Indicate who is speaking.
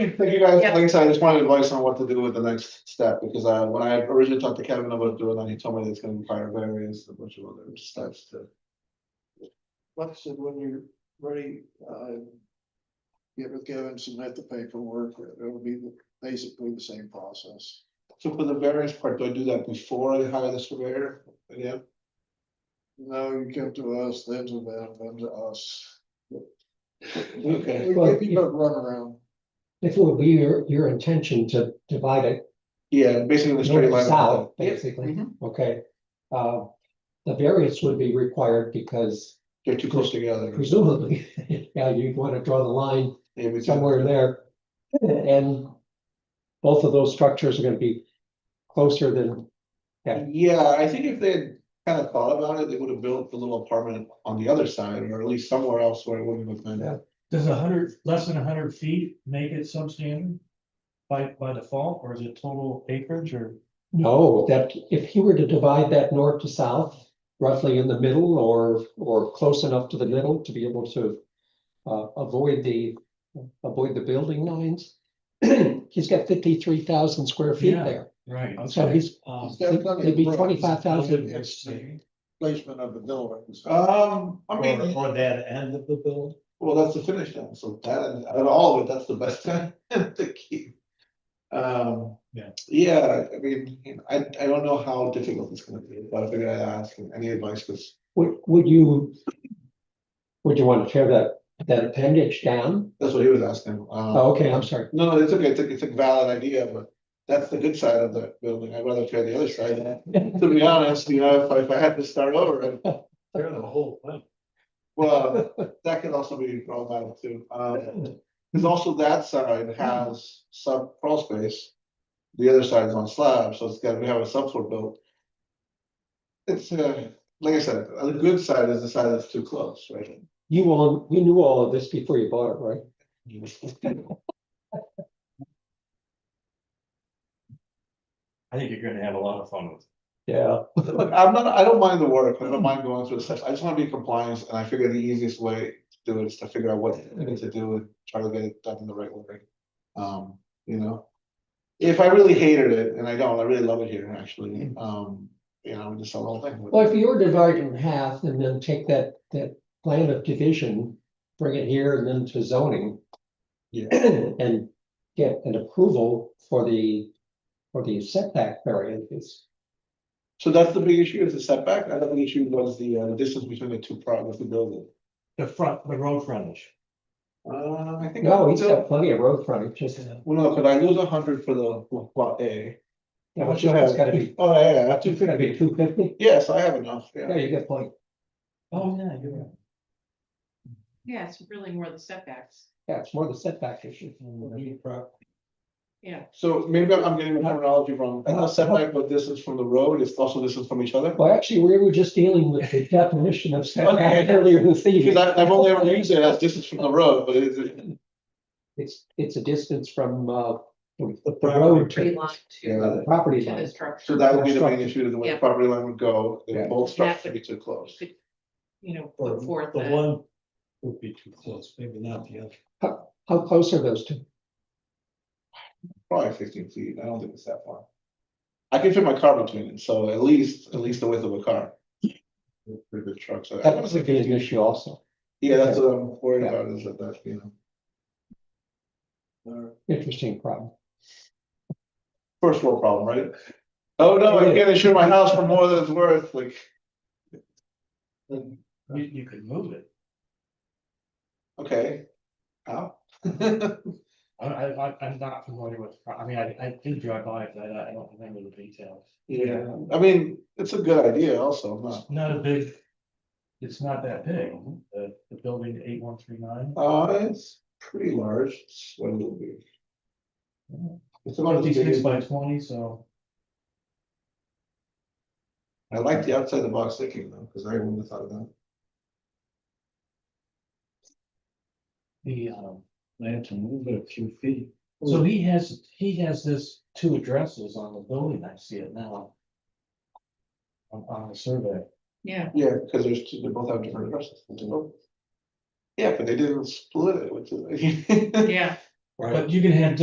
Speaker 1: you, thank you guys.
Speaker 2: Yeah.
Speaker 1: Like I said, I just wanted advice on what to do with the next step, because uh, when I originally talked to Kevin about doing that, he told me that it's gonna require various, a bunch of other steps to.
Speaker 3: Like I said, when you're ready, uh. Get with Kevin, submit the paperwork, it'll be the- basically the same process.
Speaker 1: So for the variance part, do I do that before I hire the surveyor again?
Speaker 3: No, you come to us, then to them, then to us.
Speaker 1: Okay,
Speaker 3: We give you no runaround.
Speaker 4: If it would be your, your intention to divide it
Speaker 1: yeah, basically the straight
Speaker 4: north,
Speaker 1: line.
Speaker 4: south,
Speaker 1: Yep.
Speaker 4: basically,
Speaker 1: Mhm.
Speaker 4: okay? Uh, the variance would be required because
Speaker 1: They're too close together.
Speaker 4: presumably, yeah, you'd want to draw the line
Speaker 1: Maybe it's-
Speaker 4: somewhere there. And both of those structures are gonna be closer than, Yeah.
Speaker 1: Yeah, I think if they had kind of thought about it, they would have built the little apartment on the other side, or at least somewhere else where it wouldn't have been.
Speaker 4: Yeah.
Speaker 5: Does a hundred, less than a hundred feet make it substandard? By, by default, or is it total acreage or?
Speaker 4: no, that if he were to divide that north to south, roughly in the middle or, or close enough to the middle to be able to uh, avoid the, avoid the building lines, he's got fifty-three thousand square feet
Speaker 5: Yeah.
Speaker 4: there.
Speaker 5: Right.
Speaker 4: So he's,
Speaker 5: Um,
Speaker 3: They've done it
Speaker 4: it'd be
Speaker 3: once.
Speaker 4: twenty-five thousand,
Speaker 3: It's the placement of the buildings.
Speaker 1: Um, I mean.
Speaker 5: Or that end of the build?
Speaker 1: Well, that's the finish line, so that, and out of all of it, that's the best time to keep. Um.
Speaker 5: Yeah.
Speaker 1: Yeah, I mean, you know, I, I don't know how difficult it's gonna be, but I figured I'd ask, and any advice, because.
Speaker 4: would, would you? Would you want to tear that, that appendage down?
Speaker 1: That's what he was asking.
Speaker 5: Uh.
Speaker 1: um,
Speaker 4: Oh, okay, I'm sorry.
Speaker 1: No, no, it's okay, it's, a- it's a valid idea, but that's the good side of the building, I'd rather try the other side, to be honest, you know, if I, if I had to start over, I'd
Speaker 5: They're the whole thing.
Speaker 1: Well, that could also be problematic too, um, because also that side has sub crawl space. The other side is on slab, so it's gotta we have a subfloor built. It's, uh, like I said, the good side is the side that's too close, right?
Speaker 4: You all, you knew all of this before you bought it, right?
Speaker 5: I think you're gonna have a lot of fun with.
Speaker 4: Yeah.
Speaker 1: Look, I'm not, I don't mind the work, I don't mind going through the steps, I just wanna be in compliance, and I figure the easiest way to do it is to figure out what I need to do and try to get it done in the right way. Um, you know? If I really hated it, and I don't, I really love it here, actually, um, you know, just the whole thing.
Speaker 4: Well, if you were divided in half and then take that, that plan of division, bring it here and then to zoning.
Speaker 1: Yeah.
Speaker 4: And get an approval for the, for the setback variances.
Speaker 1: So that's the big issue, is the setback, another big issue was the, uh, distance between the two products, the building.
Speaker 5: The front, the road frontage.
Speaker 1: Uh, I think.
Speaker 4: No, he's got plenty of road frontage, just.
Speaker 1: Well, no, could I lose a hundred for the lot A?
Speaker 4: Yeah,
Speaker 1: What
Speaker 4: but
Speaker 1: you have?
Speaker 4: it's gotta be,
Speaker 1: Oh, yeah, yeah, two
Speaker 4: it's gotta
Speaker 1: fifty,
Speaker 4: be two fifty,
Speaker 1: yes, I have enough,
Speaker 4: yeah,
Speaker 1: yeah,
Speaker 4: you get point,
Speaker 5: Oh, yeah, you're right.
Speaker 2: Yeah, it's really more the setbacks.
Speaker 4: yeah, it's more the setback issue.
Speaker 1: Mm, so maybe I'm I'm getting the terminology wrong, I know setback, but distance from the road, it's also distance from each other.
Speaker 4: Well, actually, we were just dealing with the definition of setback
Speaker 1: Okay.
Speaker 4: earlier this evening.
Speaker 1: Because I, I've only ever used it as distance from the road, but it's,
Speaker 4: It's, it's a distance from, uh, from the
Speaker 5: property
Speaker 4: road
Speaker 2: Tree
Speaker 4: to uh,
Speaker 2: line
Speaker 1: Yeah.
Speaker 2: to,
Speaker 4: the property
Speaker 2: to the
Speaker 4: line.
Speaker 1: so
Speaker 2: structure,
Speaker 1: that would be the main issue, is the way the
Speaker 2: Yeah.
Speaker 1: property line would go, they
Speaker 4: Yeah.
Speaker 1: both
Speaker 2: Yeah.
Speaker 1: structures be too close.
Speaker 2: you know,
Speaker 5: Or
Speaker 2: put forth
Speaker 5: The
Speaker 2: the
Speaker 5: one would be too close, maybe not the other.
Speaker 4: How close are those two?
Speaker 1: Probably fifteen feet, I don't think it's that far. I can fit my car between it, so at least, at least the width of a car. Pretty big truck, so. I
Speaker 4: That
Speaker 1: wanna
Speaker 4: was
Speaker 1: say
Speaker 4: a good
Speaker 1: 15.
Speaker 4: issue also,
Speaker 1: Yeah, that's what I'm worried
Speaker 4: Yeah.
Speaker 1: about, is that, that, you know,
Speaker 3: Or
Speaker 4: interesting problem.
Speaker 1: first world problem, right? Oh, no, I can't insure my house for more than it's worth, like.
Speaker 5: You, you could move it.
Speaker 1: Okay. How?
Speaker 5: I, I, I- I'm not familiar with, I mean, I, I did drive by, it, but I, I don't remember the details.
Speaker 1: Yeah, I mean, it's a good idea also, I'm not,
Speaker 5: It's Not a big, it's not that big, the, the building eight one three nine.
Speaker 1: uh, it's pretty large, it's one little big. It's about as big
Speaker 5: Fifty-six
Speaker 1: as,
Speaker 5: by twenty, so.
Speaker 1: I like the outside the box thinking though, because I wouldn't have thought of that.
Speaker 5: The, um, they had to move it a few feet. So he has, he has this two addresses on the building, I see it now. On, on the survey.
Speaker 2: yeah,
Speaker 1: Yeah, because there's two, they both have different addresses. they do. Yeah, but they didn't split it, which is.
Speaker 2: yeah.
Speaker 5: But you can have